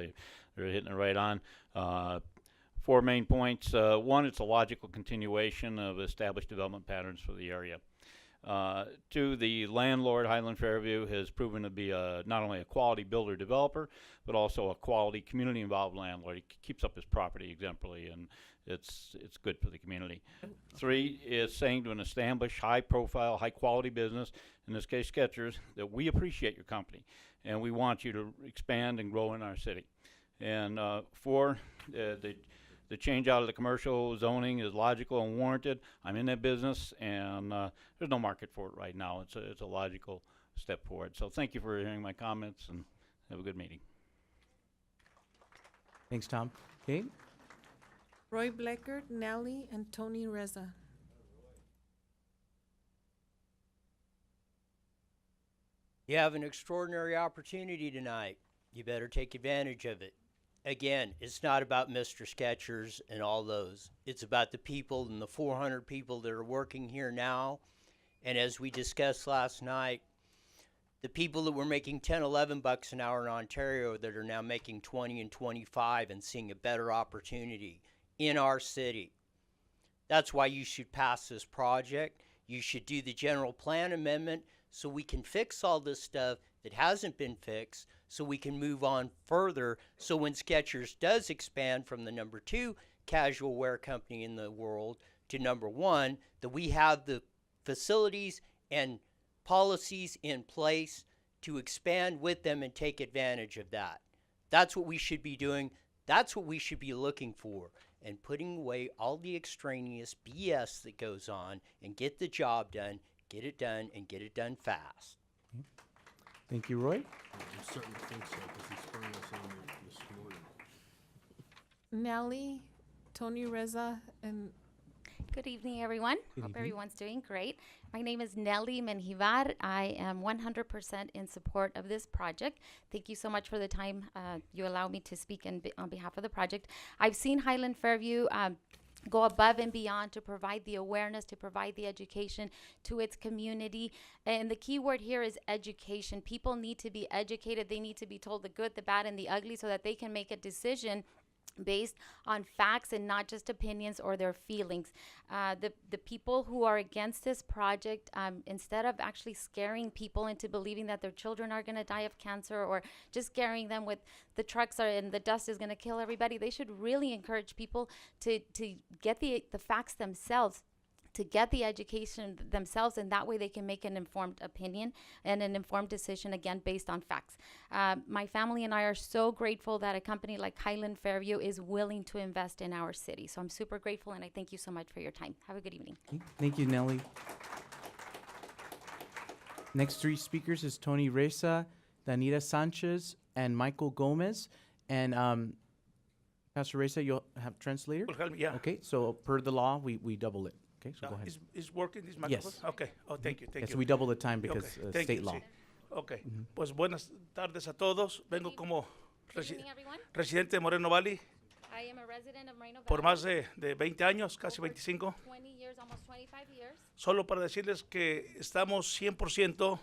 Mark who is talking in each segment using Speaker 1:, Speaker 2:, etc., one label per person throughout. Speaker 1: They, they're hitting it right on. Uh, Four main points. Uh, One, it's a logical continuation of established development patterns for the area. Uh, Two, the landlord, Highland Fairview, has proven to be a, not only a quality builder developer, but also a quality community involved landlord. He keeps up his property exemplary and it's, it's good for the community. Three is saying to an established, high profile, high quality business, in this case Skechers, that we appreciate your company and we want you to expand and grow in our city. And uh, four, uh, the, the change out of the commercial zoning is logical and warranted. I'm in that business and uh, there's no market for it right now. It's a, it's a logical step forward. So thank you for hearing my comments and have a good meeting.
Speaker 2: Thanks, Tom. Okay,
Speaker 3: Roy Blackard, Nelly, and Tony Reza.
Speaker 4: You have an extraordinary opportunity tonight. You better take advantage of it. Again, it's not about Mr. Skechers and all those. It's about the people and the 400 people that are working here now. And as we discussed last night, the people that were making 10, 11 bucks an hour in Ontario that are now making 20 and 25 and seeing a better opportunity in our city. That's why you should pass this project. You should do the general plan amendment so we can fix all this stuff that hasn't been fixed so we can move on further. So when Skechers does expand from the number two casual wear company in the world to number one, that we have the facilities and policies in place to expand with them and take advantage of that. That's what we should be doing. That's what we should be looking for and putting away all the extraneous BS that goes on and get the job done, get it done, and get it done fast.
Speaker 2: thank you, Roy.
Speaker 5: I certainly think so, because he sprung us on it this morning.
Speaker 3: Nelly, Tony Reza, and
Speaker 6: Good evening, everyone. Hope everyone's doing great. My name is Nelly Menjivar. I am 100% in support of this project. Thank you so much for the time uh, you allow me to speak in be- on behalf of the project. I've seen Highland Fairview. Um, go above and beyond to provide the awareness to provide the education to its community and the key word here is education people need to be educated they need to be told the good the bad and the ugly so that they can make a decision based on facts and not just opinions or their feelings. Uh, the, the people who are against this project, um, instead of actually scaring people into believing that their children are going to die of cancer or just scaring them with the trucks are and the dust is going to kill everybody, they should really encourage people to, to get the, the facts themselves to get the education th- themselves, and that way they can make an informed opinion and an informed decision again based on facts. Uh, my family and I are so grateful that a company like Highland Fairview is willing to invest in our city. So I'm super grateful, and I thank you so much for your time. Have a good evening.
Speaker 2: Thank you, Nelly. Next three speakers is Tony Reza, Danita Sanchez, and Michael Gomez. And um, Pastor Reza, you'll have translator?
Speaker 7: Will help me, yeah.
Speaker 2: Okay, so per the law, we, we double it. Okay, so
Speaker 7: Uh,
Speaker 2: go ahead.
Speaker 7: Is, is working this microphone?
Speaker 2: Yes.
Speaker 7: Okay. Oh, thank you, thank
Speaker 2: Yes,
Speaker 7: you.
Speaker 2: we double the time because
Speaker 7: Okay,
Speaker 2: uh,
Speaker 7: thank
Speaker 2: state
Speaker 7: you,
Speaker 2: law. Mm-hmm.
Speaker 7: sí. Ok. Pues buenas tardes a todos. Vengo como
Speaker 6: Good
Speaker 7: resi-
Speaker 6: evening, everyone.
Speaker 7: residente de Moreno Valley
Speaker 6: I am a resident of Moreno
Speaker 7: por
Speaker 6: Valley,
Speaker 7: más de, de 20 años, casi
Speaker 6: Over.
Speaker 7: 25.
Speaker 6: 20 years, almost 25 years.
Speaker 7: Solo para decirles que estamos 100%
Speaker 6: Just to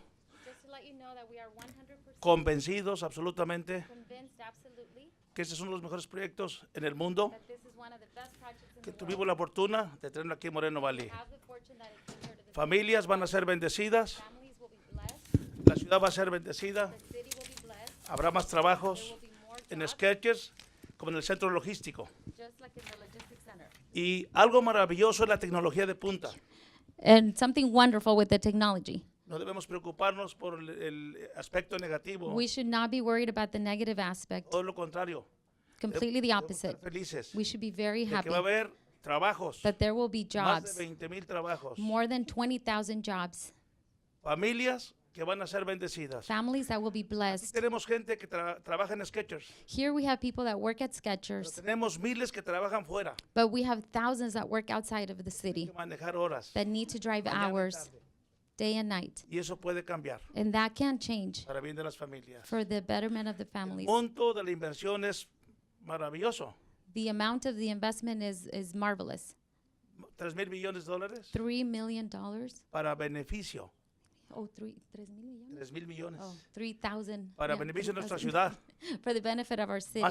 Speaker 6: let you know that we are 100%
Speaker 7: convencidos absolutamente
Speaker 6: convinced absolutely
Speaker 7: que este es uno de los mejores proyectos en el mundo.
Speaker 6: that this is one of the best projects in the
Speaker 7: Que
Speaker 6: world.
Speaker 7: tuvimos la fortuna de tenerlo aquí en Moreno Valley.
Speaker 6: Have the fortune that it came here to the
Speaker 7: Familias van a ser bendecidas,
Speaker 6: families will be blessed.
Speaker 7: la ciudad va a ser bendecida,
Speaker 6: The city will be blessed.
Speaker 7: habrá más
Speaker 6: There
Speaker 7: trabajos
Speaker 6: will be more
Speaker 7: en
Speaker 6: jobs,
Speaker 7: sketches como en el centro logístico.
Speaker 6: just like in the logistics center.
Speaker 7: Y algo maravilloso es la tecnología de punta.
Speaker 6: And something wonderful with the technology.
Speaker 7: No debemos preocuparnos por el, el aspecto negativo.
Speaker 6: We should not be worried about the negative aspect,
Speaker 7: Todo lo contrario.
Speaker 6: completely the
Speaker 7: Debemos
Speaker 6: opposite.
Speaker 7: estar felices.
Speaker 6: We should be very
Speaker 7: de
Speaker 6: happy
Speaker 7: que va a haber trabajos.
Speaker 6: that there will be
Speaker 7: Más de
Speaker 6: jobs,
Speaker 7: 20 mil trabajos.
Speaker 6: more than 20,000 jobs,
Speaker 7: Familias que van a ser bendecidas.
Speaker 6: families that will be blessed.
Speaker 7: Tenemos gente que tra- trabaja en Sketchers.
Speaker 6: Here we have people that work at Skechers,
Speaker 7: Tenemos miles que trabajan fuera,
Speaker 6: but we have thousands that work outside of the
Speaker 7: que
Speaker 6: city
Speaker 7: manejar horas.
Speaker 6: that need to drive
Speaker 7: mañana y
Speaker 6: hours,
Speaker 7: tarde.
Speaker 6: day and night.
Speaker 7: Y eso puede cambiar
Speaker 6: And that can change
Speaker 7: para bien de las familias.
Speaker 6: for the betterment of the
Speaker 7: El
Speaker 6: families.
Speaker 7: monto de la inversión es maravilloso.
Speaker 6: The amount of the investment is, is marvelous.
Speaker 7: 3 mil millones de dólares
Speaker 6: Three million dollars?
Speaker 7: para beneficio.
Speaker 6: Oh, three, tres mil millones?
Speaker 7: 3 mil millones.
Speaker 6: Oh, three thousand.
Speaker 7: Para
Speaker 6: yeah,
Speaker 7: beneficio de nuestra
Speaker 6: 3,000.
Speaker 7: ciudad.
Speaker 6: For the benefit of our city.